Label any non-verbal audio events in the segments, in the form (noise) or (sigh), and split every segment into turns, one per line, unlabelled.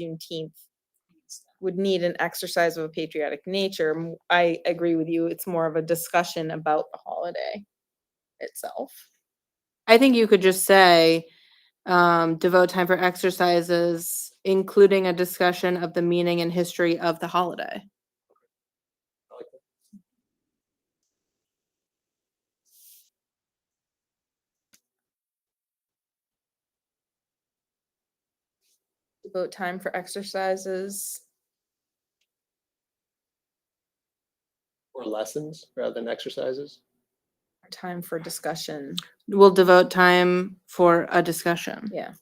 Juneteenth would need an exercise of a patriotic nature. M- I agree with you. It's more of a discussion about the holiday itself.
I think you could just say, um, devote time for exercises, including a discussion of the meaning and history of the holiday.
Devote time for exercises.
or lessons rather than exercises.
or Time for discussion.
We'll devote time for a discussion.
Yeah.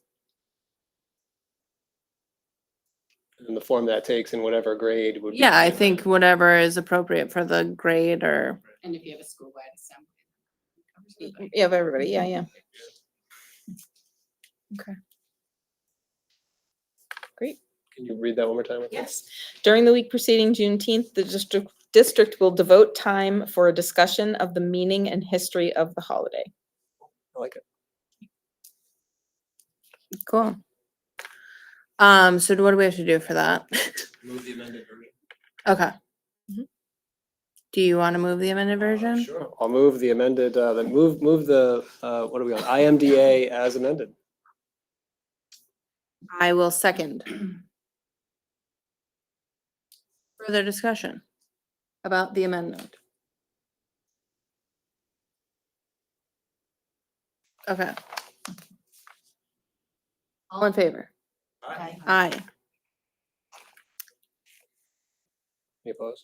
And the form that takes in whatever grade would. be
Yeah, I
different.
think whatever is appropriate for the grade or,
And if you have a school-wide assembly. that covers
Y- y-
everybody.
Yeah, of everybody. Yeah, yeah. Okay. Great.
Can you read that one more time? with me?
Yes. During the week preceding Juneteenth, the district, district will devote time for a discussion of the meaning and history of the holiday.
I like it.
(laughs)
cool. Um, so what do we have to do for that? (laughs)
Move the amended version.
Okay.
Mhm.
Do you want to move the amended version?
Sure. I'll move the amended, uh, the move, move the, uh, what are we on? IMDA as amended.
I will second. Further discussion about the amendment. Okay. All in favor?
Aye.
Aye.
Any opposed?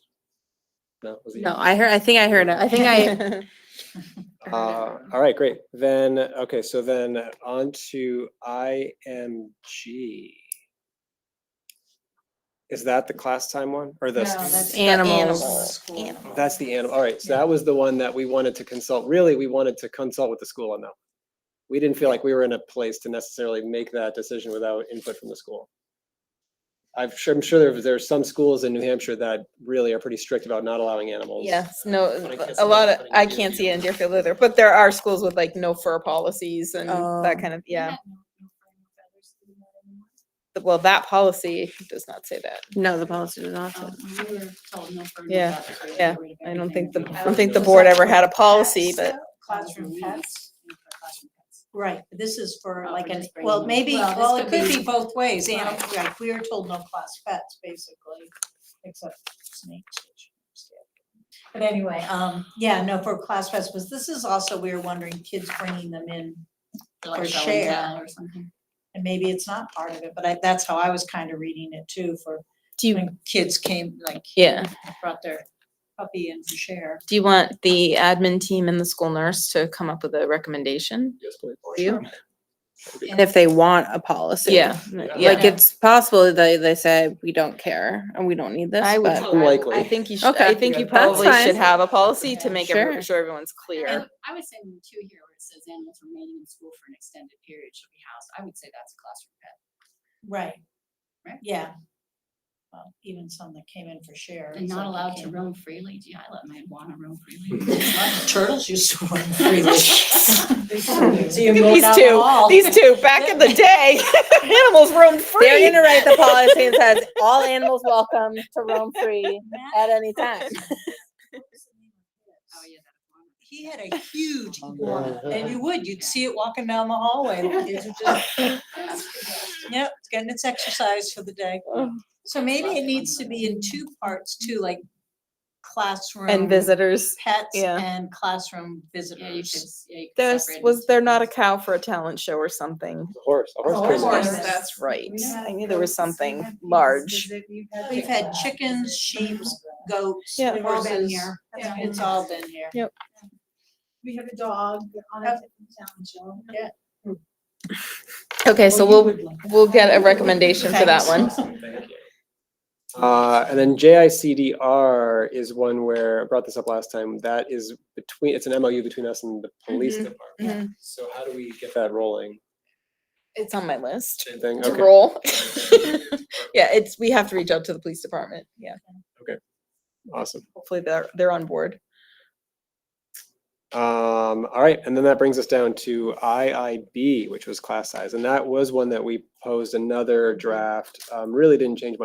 No? was it
No, I heard, I think I heard it. I think (laughs) I,
you? Uh, all right, great. Then, okay, so then on to IMG. Is that the class time one or the?
No, that's the
animals.
animals.
Animals.
That's the animal, all right, so that was the one that we wanted to consult, really, we wanted to consult with the school on that. We didn't feel like we were in a place to necessarily make that decision without input from the school. I'm sure, I'm sure there, there are some schools in New Hampshire that really are pretty strict about not allowing animals.
Yes, no,
But I can't see
a
that
lot of,
happening in
I can't see it in Deerfield either, but there are schools with like no fur policies and that
Oh.
kind of,
We
yeah.
had no- no friends with others who did that anymore.
Th- Well, that policy does not say that.
no, the policy does not. say
Um, when We were told no. friends with
Yeah,
others, we had to
yeah.
get rid of
I don't think the,
everything.
I don't think the board ever had a policy,
(laughs)
but
Classroom pets,
Yeah, for classroom pets.
Mm-hmm. right, but this is for
Oh,
like
we're
an,
just bringing
well,
them.
maybe,
Well, this
well, it
could
could
be-
be both ways, and,
Right.
like, we are told no class pets, basically, except snakes. which we understand. But anyway, um, yeah, no, for class pets, but this is also, we were wondering, kids bringing them in,
Like
For
show and tell
share.
Or something.
and maybe it's not part of it, but I, that's how I was kind of reading it too, for
do you,
when kids came, like,
yeah,
brought their puppy in to share.
do you want the admin team and the school nurse to come up with a recommendation?
Yes, please.
You?
And if they want a policy.
Yeah,
Yeah.
yeah.
Like it's possible that they, they say, we don't care and we don't need this,
I would,
but.
I would- I
Unlikely.
think you should, I
Okay.
think you
Yeah, that's
probably should
fine.
have a policy to
Yeah.
make every-
Sure.
sure everyone's
And
clear.
I would say number two here where it says animals remaining in school for an extended period should be housed. I would say that's a classroom pet.
Right.
Right?
Yeah. Well, even some that came in for share.
And not
some that
allowed to
came-
roam freely. Gee, I let mine wanna roam freely.
(laughs)
(laughs)
Turtles used to run
(laughs)
freely.
Oh,
So you
Look
mowed
at
down
these
the
two, (laughs)
hall.
these two, back in the day, (laughs) animals roamed free.
They're gonna write the policy and
(laughs)
says, all animals welcome to roam free (laughs) at any time.
Oh, yeah. that's one.
He had a huge iguana, and you would, you'd see it walking down the hallway. the kids would just- Yep, it's getting its exercise for the day. So maybe it needs to be in two parts too, like classroom.
And visitors.
Pets
yeah.
and classroom
Yeah, you could,
visitors.
yeah, you could
There's,
separate it
was
into
there not a
groups.
cow for a talent show or something?
Horse, a
Oh,
horse.
horse.
crazy.
That's right.
Yeah,
I knew there was
goats, we
something
had these
large.
visit- we've had
We've
chickens.
had chickens, sheep, goats,
Yeah.
horses.
They've
all been here.
Yeah,
Yeah.
It's all been here.
We have a dog on a
Yep.
different town show.
Okay, so we'll,
would like
we'll get a recommendation for that one.
Thanks.
Uh, and then JICDR is one where, I brought this up last time, that is between, it's an MOU between us and the police
Mhm,
department. So how do we get that rolling?
It's on my list
Same thing,
to
okay.
roll. (laughs) Yeah, it's, we have to reach out to the police department. Yeah,
Awesome.
hopefully they're, they're on board.
Um, all right, and then that brings us down to IIB, which was class size, and that was one that we posed another draft. Um, really didn't change much.